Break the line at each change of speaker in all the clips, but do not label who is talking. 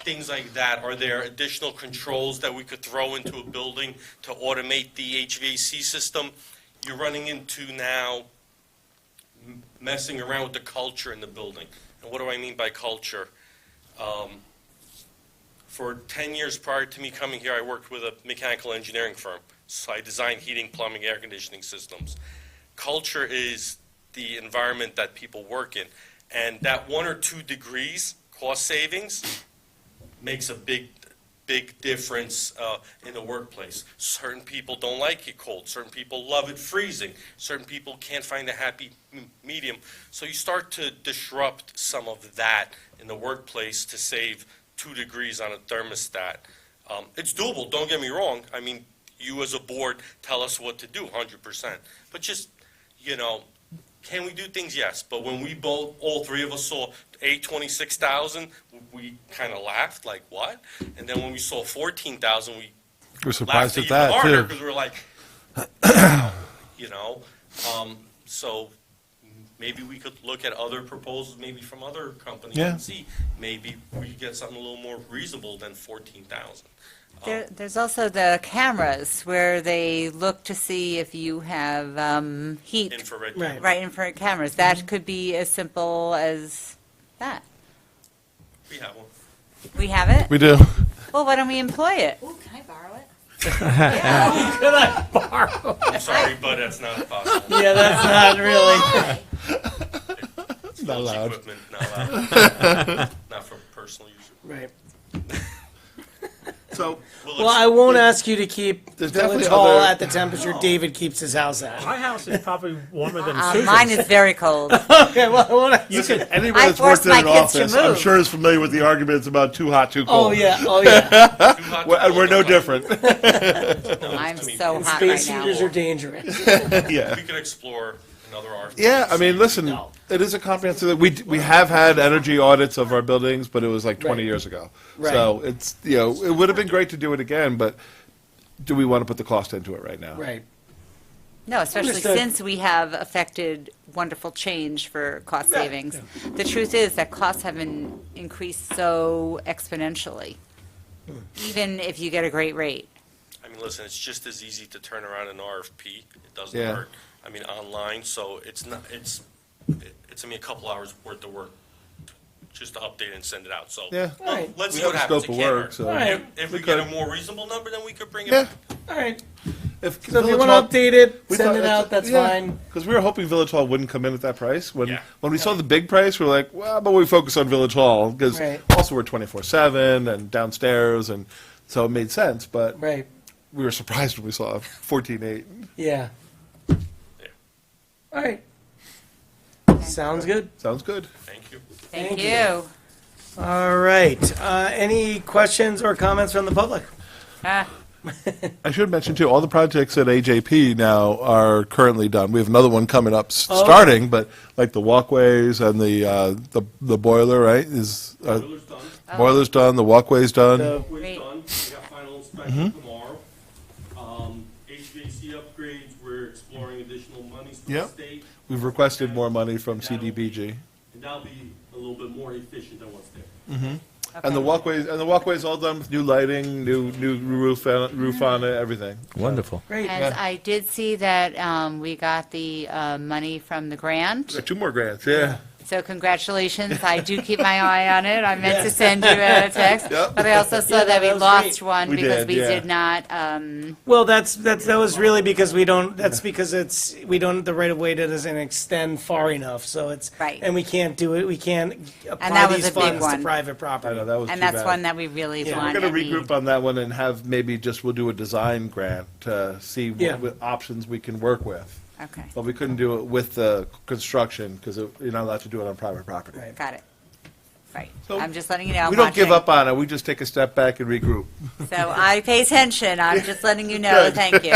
things like that, are there additional controls that we could throw into a building to automate the HVAC system? You're running into now m- messing around with the culture in the building. And what do I mean by culture? Um, For 10 years prior to me coming here, I worked with a mechanical engineering firm. So I designed heating, plumbing, air conditioning systems. Culture is the environment that people work in. And that one or two degrees cost savings makes a big, big difference uh, in the workplace. Certain people don't like it cold. Certain people love it freezing. Certain people can't find a happy m- medium. So you start to disrupt some of that in the workplace to save two degrees on a thermostat. Um, it's doable, don't get me wrong. I mean, you as a board tell us what to do 100%. But just, you know, can we do things? Yes, but when we both, all three of us saw a twenty-six thousand, we kind of laughed, like, what? And then when we saw fourteen thousand, we
We're
laughed
surprised at
even harder,
that,
because
too.
we were like, you know? Um, so maybe we could look at other proposals, maybe from other companies
Yeah.
and see, maybe we could get something a little more reasonable than fourteen thousand.
There, there's also the cameras where they look to see if you have um, heat.
Infrared.
Right.
camera.
Right, infrared cameras.
Mm-hmm.
That could be as simple as that.
We have one.
We have it?
We do.
Well, why don't we employ it?
Ooh, can I borrow it?
I'm sorry, but that's not possible.
Yeah, that's not really.
It's
Not
lousy
allowed.
Equipment, not allowed. Not for personal use.
Right.
So,
We'll
Well, I won't ask you to keep
There's
Village
definitely
Hall
other-
at the temperature David keeps his house at.
My house is probably warmer than
Uh,
Susan's.
mine is very cold.
Okay, well, I won't ask you.
Listen, Anyone that's
forced
worked in
my
an
kids to
office, I'm
move.
sure is familiar with the arguments about too hot, too cold.
Oh, yeah, oh, yeah.
Too hot to
We're- And we're
hold
no
on.
different.
I'm
I mean,
so hot right
Space heaters are
now.
dangerous.
Yeah.
We could explore another RFP.
Yeah, uh, I mean, listen,
No.
it is a comprehensive, we, d- we have had energy audits of our buildings, but it was like 20
Right.
years ago.
Right.
So it's, you know, it would have been great to do it again, but do we want to put the cost into it right now?
Right.
No, especially
Understood.
since we have affected wonderful change for cost
Yeah.
savings. The truth is that costs have been increased so exponentially,
Hmm.
even if you get a great rate.
I mean, listen, it's just as easy to turn around an RFP. It doesn't
Yeah.
hurt. I mean, online, so it's not, it's, it's, I mean, a couple hours worth of work just to update and send it out, so.
Yeah.
All right,
Let's
We
see what
have a
happens.
scope of
It can't
work,
hurt.
so.
All right.
If
We
we get a
could.
more reasonable number, then we could bring it
Yeah.
back.
all right.
If
So if you
Village
want
Hall-
to update it,
we
send
thought
it out, that's fine.
Because we were hoping Village Hall wouldn't come in at that price. When
Yeah.
when we saw the big price, we were like, well, but we focus on Village Hall because
Right.
also we're twenty four seven and downstairs, and so it made sense. But
Right,
we were surprised when we saw fourteen eight.
yeah. All right. Sounds good.
Sounds good.
Thank you.
Thank
Thank
you.
All right. Uh, any questions or comments from the public?
Ah,
I should mention too, all the projects at AJP now are currently done. We have another one coming up, s
Oh.
starting, but like the walkways and the uh, the the boiler, right? Is uh,
Boiler's done.
Oh.
boiler's done, the walkway's done.
So-
We're
Great.
done. We got final inspection
Mm-hmm.
tomorrow. Um, HVAC upgrades, we're exploring additional monies from the
Yep.
state.
We've requested more money from CDBG.
And that'll be a little bit more efficient than what's there.
And the walkways, and the walkway's all done with new lighting, new, new roof, on-
Mm.
roof on it, everything.
Wonderful.
Great.
And I did see that um, we got the uh, money from the grant,
Got Two more grants, yeah.
so congratulations. I do keep my eye on it. I meant to send you a text,
Yep.
but I also saw
Yeah,
that we
that was
lost
great.
one
We
because
did,
we
yeah.
did not, um,
Well, that's, that's, that was really because we don't, that's because it's, we don't, the right of way doesn't extend far enough, so it's.
Right.
And we can't do it, we can't apply
that was
these
a big
funds to
one.
private property.
I know, that was too
and that's
bad.
one that we really
Yeah.
We're
wanted.
gonna regroup on that one and have maybe just, we'll do a design grant to see
Yeah.
what what options we can work with.
Okay,
But we couldn't do it with the construction, because you're not allowed to do it on private property.
Right.
got it. Right.
So,
I'm just letting you know. I'm
We don't give
watching.
up on it, we just take a step back and regroup.
So I pay attention. I'm just letting you know. Thank you.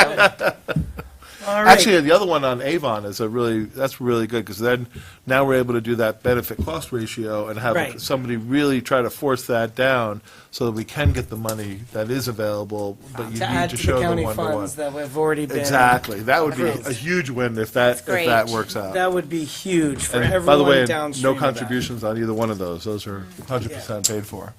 All right.
Actually, the other one on Avon is a really, that's really good, because then, now we're able to do that benefit-cost ratio and have
Right.
somebody really try to force that down so that we can get the money that is available, but you
To add
need to
to the
show them
county
one-to-one.
funds that have already been.
Exactly, that would be
Approved.
a huge win if that, if
great.
that works out.
That would be huge for
And by the way,
everyone downstream
no
of that.
contributions on either one of those, those are 100% paid for.